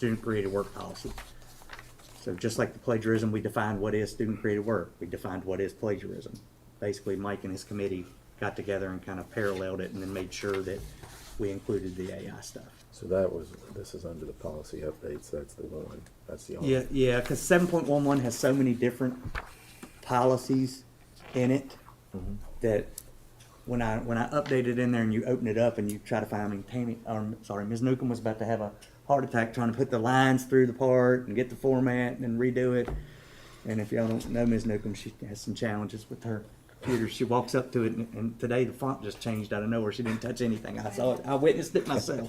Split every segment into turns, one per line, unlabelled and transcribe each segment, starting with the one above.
student-created work policy. So just like the plagiarism, we defined what is student-created work, we defined what is plagiarism. Basically, Mike and his committee got together and kind of paralleled it and then made sure that we included the AI stuff.
So that was, this is under the policy updates, that's the one, that's the only.
Yeah, yeah, because seven point one one has so many different policies in it that when I, when I update it in there and you open it up and you try to find, I mean, Tammy, um, sorry, Ms. Newcomb was about to have a heart attack trying to put the lines through the part and get the format and redo it. And if y'all don't know Ms. Newcomb, she has some challenges with her computer. She walks up to it and, and today the font just changed out of nowhere. She didn't touch anything. I saw it. I witnessed it myself.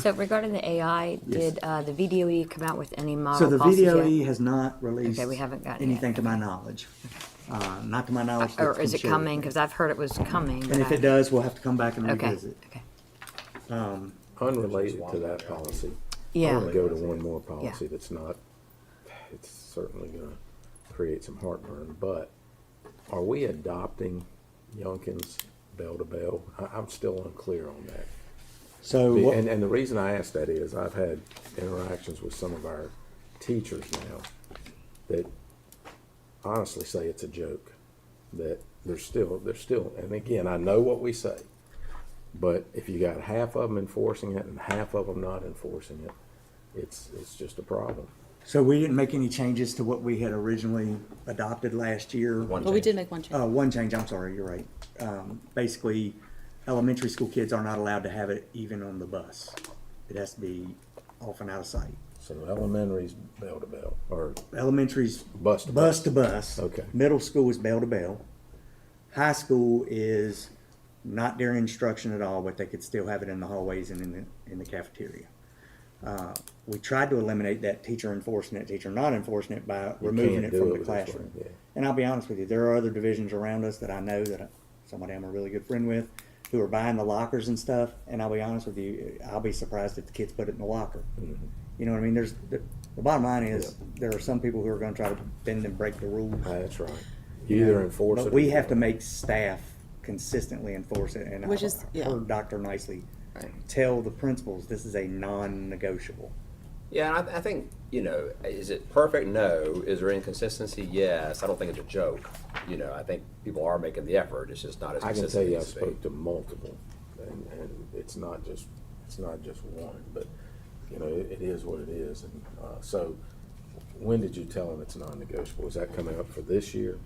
So regarding the AI,
Yes.
did uh, the VDOE come out with any
So
model
the
policies yet?
VDOE has not released.
Okay, we haven't gotten it.
Anything to my knowledge. Uh, not to my knowledge. that's
Or is
been
it
shared.
coming? Because I've heard it was coming. but
And if
I-
it does, we'll have to come back and
Okay,
revisit.
okay.
Unrelated to that policy. I'm
Yeah,
gonna go to one more policy that's not, it's certainly gonna create some heartburn, but are we adopting Youngkin's bell to bell? I, I'm still unclear on that.
So,
The-
what-
And, and the reason I ask that is I've had interactions with some of our teachers now that honestly say it's a joke, that they're still, they're still, and again, I know what we say. But if you got half of them enforcing it and half of them not enforcing it, it's, it's just a problem.
so we didn't make any changes to what we had originally adopted last year.
One
Well, we
change.
did make one
Uh,
change.
one change, I'm sorry, you're right. Um, basically, elementary school kids are not allowed to have it even on the bus. It has to be off and out of sight.
So elementary's bell to bell, or
Elementary's
Bus to
bus to bus.
Okay.
Middle school is bell to bell. High school is not during instruction at all, but they could still have it in the hallways and in the, in the cafeteria. Uh, We tried to eliminate that teacher enforcing it, teacher not enforcing it by removing
can't
it
do
from
it
the
this way,
classroom.
yeah.
And I'll be honest with you, there are other divisions around us that I know that I- somebody I'm a really good friend with who are buying the lockers and stuff, and I'll be honest with you, I'll be surprised if the kids put it in the locker.
Mm-hmm.
You know what I mean? There's, the, the bottom line is, there are some people who are gonna try to bend and break the rules.
that's right. You either enforce it.
But
or
we
you
have to
don't.
make staff consistently enforce it, and
Which is-
I've
yeah.
heard Dr. Nicely
Right.
tell the principals, this is a non-negotiable.
Yeah, and I, I think, you know, is it perfect? No. Is there inconsistency? Yes. I don't think it's a joke. You know, I think people are making the effort. It's just not as
I can
consistent
tell you, I
as it needs
spoke to multiple, and, and it's not just, it's not just one, but, you know, it, it is what it is, and, uh, so, when did you tell them it's non-negotiable? Is that coming out for this year?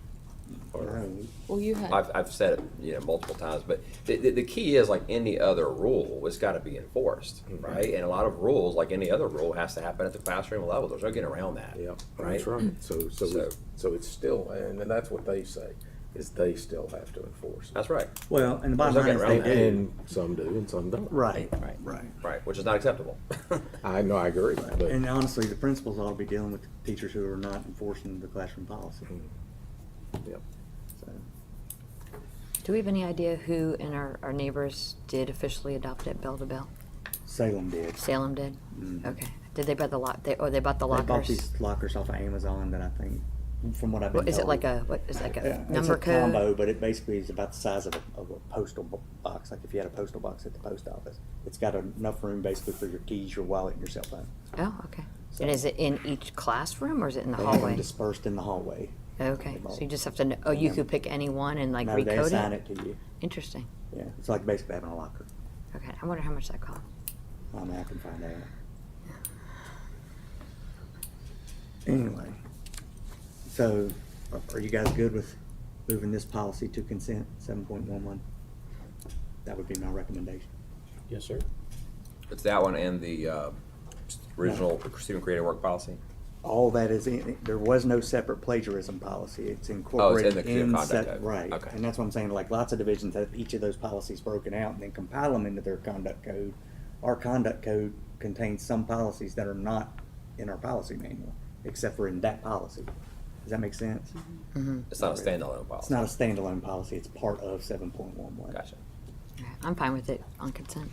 Or,
Well, you
to be.
had,
I've, I've said it, you know, multiple times, but the, the, the key is like any other rule, it's got to be enforced,
Mm-hmm.
right? And a lot of rules, like any other rule, has to happen at the classroom level. There's no getting around that.
yeah,
Right.
that's right, so, so,
So-
we- so it's still, and, and that's what they say, is they still have to enforce it.
That's right.
Well, and the bottom
There's
line
no
is
getting
they
around that.
do.
And some do and some don't.
Right,
Right.
right.
Right, which is not acceptable.
I know, I agree, but,
And honestly, the principals ought to be dealing with teachers who are not enforcing the classroom policy.
Mm-hmm. mm, yeah,
So,
do we have any idea who in our, our neighbors did officially adopt it bell to bell?
Salem did.
Salem did? Okay. Did they buy the lock, they, oh, they bought the
Mm. They bought
lockers?
these lockers off of Amazon that I think, from what I've been
Well,
told.
Is it like a, what, is it like
Yeah,
a
it's a
number
combo,
code?
but it basically is about the size of a, of a postal bo- box. Like if you had a postal box at the post office, it's got enough room basically for your keys, your wallet, and your cell phone.
Oh, okay. And is it in each classroom or is it in the
They have them
hallway?
dispersed in the hallway.
Okay, so you just have to, kn- oh, you could pick any one and like
Now they assign
recode it?
it to you.
Interesting.
Yeah, it's like basically having a locker.
Okay, I wonder how much that cost.
I mean, I can find out. Anyway, so are- are you guys good with moving this policy to consent, seven point one one? That would be my recommendation.
Yes, sir.
it's that one and the uh, original student created work policy.
All that is in, there was no separate plagiarism policy. It's incorporated
code of
in
conduct
set,
code.
right.
Okay.
And that's what I'm saying, like lots of divisions have each of those policies broken out and then compile them into their conduct code. Our conduct code contains some policies that are not in our policy manual, except for in that policy. Does that make sense?
Mm-hmm. It's not a standalone policy.
It's not a standalone policy, it's part of seven point one one.
Gotcha.
Okay, I'm fine with it on consent.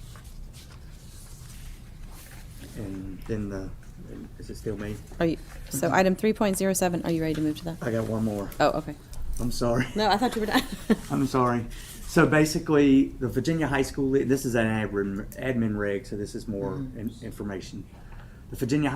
And then the, and is it still me?
are you, so item three point zero seven, are you ready to move to that?
I got one more.
Oh, okay.
I'm sorry.
No, I thought you were done.
I'm sorry. So basically, the Virginia High School, this is an admin, admin reg, so this is more in- information. the Virginia